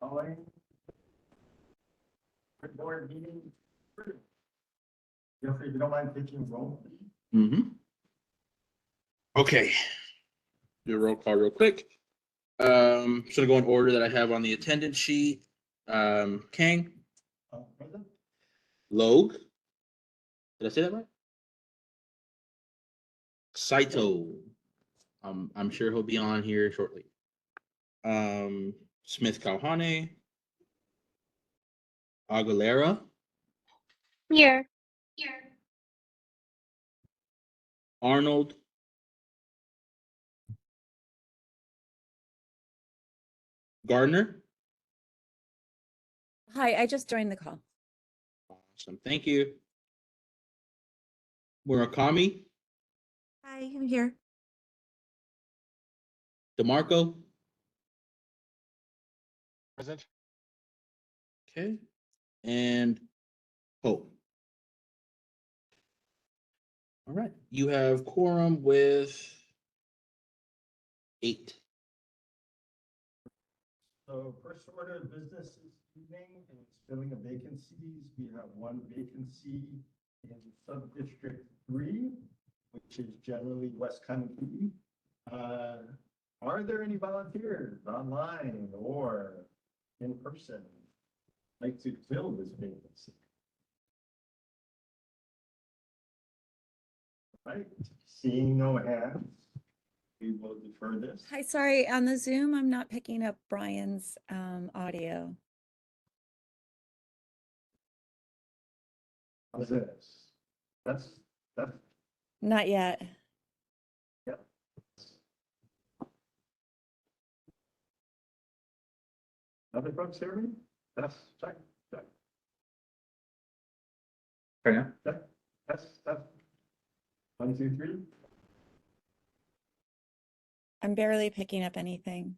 calling. the Board meeting. Jeffrey, if you don't mind taking roll. Mhm. Okay. Do a roll call real quick. Um, so to go in order that I have on the attendance sheet, um, Kang, uh, present? Logue. Did I say that right? Saito. Um, I'm sure he'll be on here shortly. Um, Smith Kalhane. Aguilera, Here. Here. Arnold. Gardner. Hi, I just joined the call. Awesome, thank you. Murakami, Hi, I'm here. DeMarco, Present. okay, and Pope. All right, you have quorum with eight. So first order of business this evening is filling of vacancies. We have one vacancy in sub-district three, which is generally West County. Uh, Are there any volunteers online or in person like to fill this vacancy? Right, seeing no hands, we will defer this. Hi, sorry, on the Zoom, I'm not picking up Brian's um, audio. How's this? That's, that's Not yet. Other folks hear me? That's, check, check, check, that's, that's. One, two, three. I'm barely picking up anything.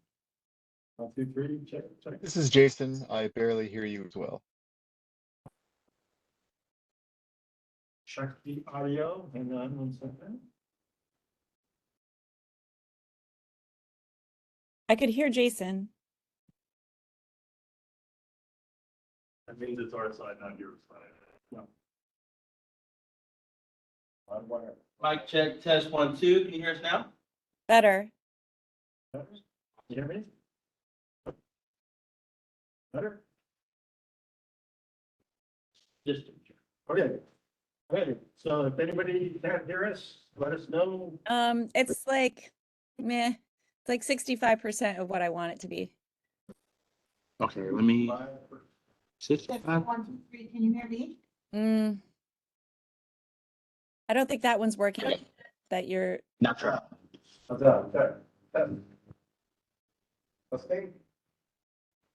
One, two, three. check, check. This is Jason. I barely hear you as well. Check the audio, hang on one second. I could hear Jason. That means it's our side, not your side. No. On wire. Mic check, test one, two, can you hear us now? Better. You hear me? Better? Just, Okay. Okay, so if anybody can't hear us, let us know. Um, it's like meh. It's like 65% of what I want it to be. okay, let me. Six, That's five, one, two, three, can you hear me? Mm. I don't think that one's working. That you're not sure. How's that? Check, check. Testing?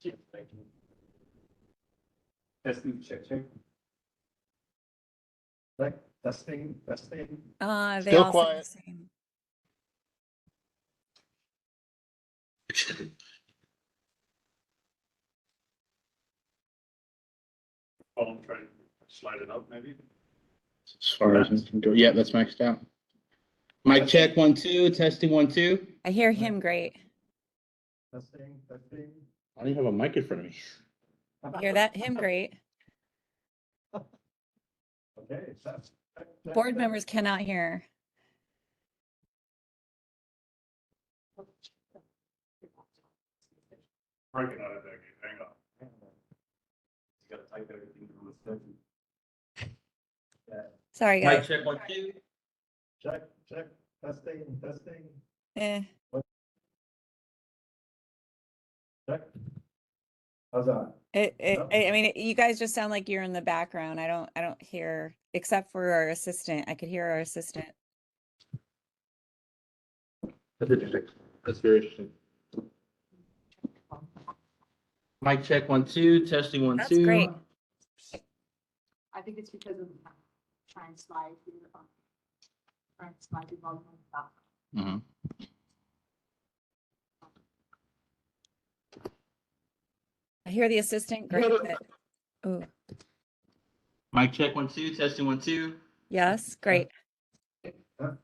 Check, thank you. Testing, check, check. Right, testing, testing. uh they Still all sound the quiet. same. Oh, I'm trying to slide it up maybe. As far as, yeah, that's maxed out. Mic check, one, two, testing, one, two. I hear him great. Testing, testing. I don't even have a mic in front of me. I Hear that him great. Okay, test. check, check, Board check. members cannot hear. Breaking out of there, hang on. You gotta type everything from the second. Sorry, Mic guys. check, one, two. Check, check, testing, testing, Eh. check. How's that? It, it, No? I I mean, you guys just sound like you're in the background. I don't, I don't hear, except for our assistant. I could hear our assistant. That's interesting. That's very interesting. Mic check, one, two, testing, one, That's two. great. I think it's because of the trying slide here. um, Trying to slide the volume up. Mhm. I hear the assistant great. Oh, Mic check, one, two, testing, one, two. yes, great. Test,